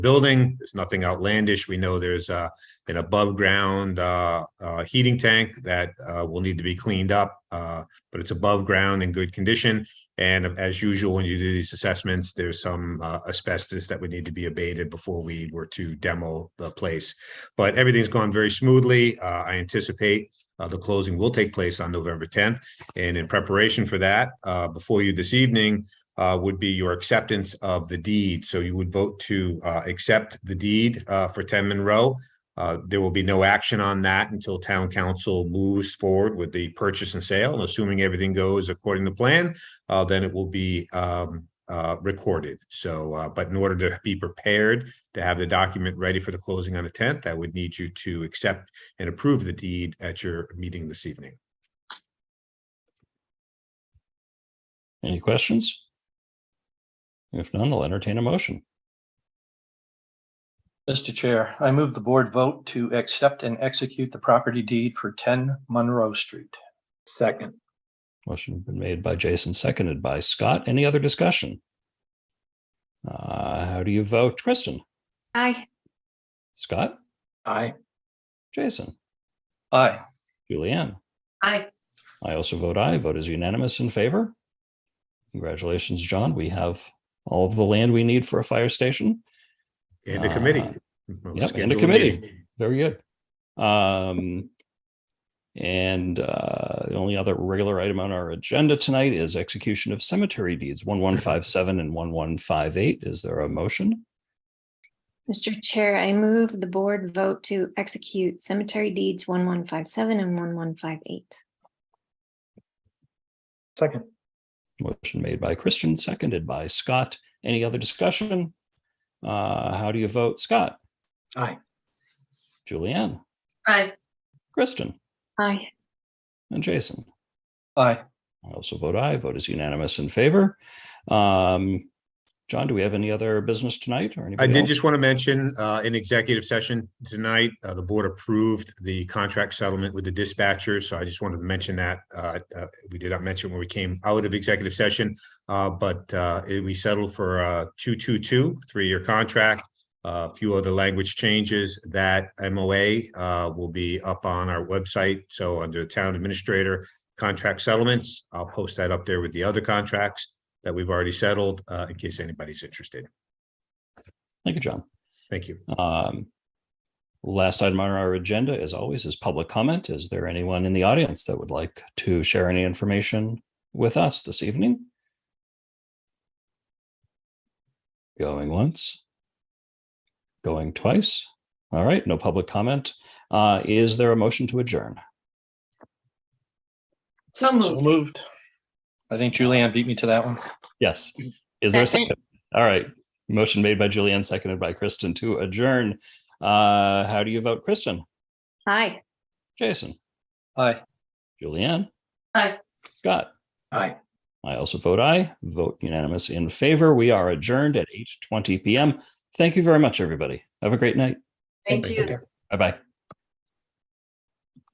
building. There's nothing outlandish. We know there's uh, an above-ground uh, uh, heating tank that uh, will need to be cleaned up, uh, but it's above ground in good condition. And as usual, when you do these assessments, there's some uh, asbestos that would need to be abated before we were to demo the place. But everything's gone very smoothly. Uh, I anticipate uh, the closing will take place on November 10th. And in preparation for that, uh, before you this evening uh, would be your acceptance of the deed. So you would vote to uh, accept the deed uh, for 10 Monroe. Uh, There will be no action on that until town council moves forward with the purchase and sale. And Assuming everything goes according to plan, uh, then it will be um, uh, recorded. So, uh, but in order to be prepared to have the document ready for the closing on the 10th, I would need you to accept and approve the deed at your meeting this evening. Any questions? If none, I'll entertain a motion. Mr. Chair, I move the board vote to accept and execute the property deed for 10 Monroe Street. Second, Motion been made by Jason, seconded by Scott. Any other discussion? Uh, how do you vote? Kristen, Aye. Scott, aye. Jason, Aye. Julianne. Aye. I also vote aye. Vote is unanimous in favor. Congratulations, John. We have all of the land we need for a fire station. And the Uh, committee. yep, We'll and the schedule a committee. meeting. Very good. Um, and uh, the only other regular item on our agenda tonight is execution of cemetery deeds 1157 and 1158. Is there a motion? Mr. Chair, I move the board vote to execute cemetery deeds one one five seven and one one five eight. Second, Motion made by Christian, seconded by Scott. Any other discussion? Uh, how do you vote? Scott, aye. Julianne, Aye. Kristen, Aye. and Jason. Aye. I also vote aye. Vote is unanimous in favor. Um, John, do we have any other business tonight or I anybody did else? just want to mention, uh, in executive session tonight, uh, the board approved the contract settlement with the dispatcher, so I just wanted to mention that. Uh, uh, we did not mention when we came out of executive session, uh, but, uh, it- we settled for a two-two-two, three-year contract. Uh, A few other language changes that MOA, uh, will be up on our website, so under Town Administrator Contract Settlements, I'll post that up there with the other contracts that we've already settled, uh, in case anybody's interested. Thank you, John. Thank you. Um, Last item on our agenda, as always, is public comment. Is there anyone in the audience that would like to share any information with us this evening? Going once. Going twice. All right, no public comment. Uh, Is there a motion to adjourn? So So moved. moved. I think Julianne beat me to that one. Yes. Is there a Second. second? All right. Motion made by Julianne, seconded by Kristen to adjourn. Uh, How do you vote, Kristen? Aye. Jason? Aye. Julianne? Aye. Scott? Aye. I also vote aye. Vote unanimous in favor. We are adjourned at 8:20 PM. Thank you very much, everybody. Have a great night. Thank you. Bye-bye.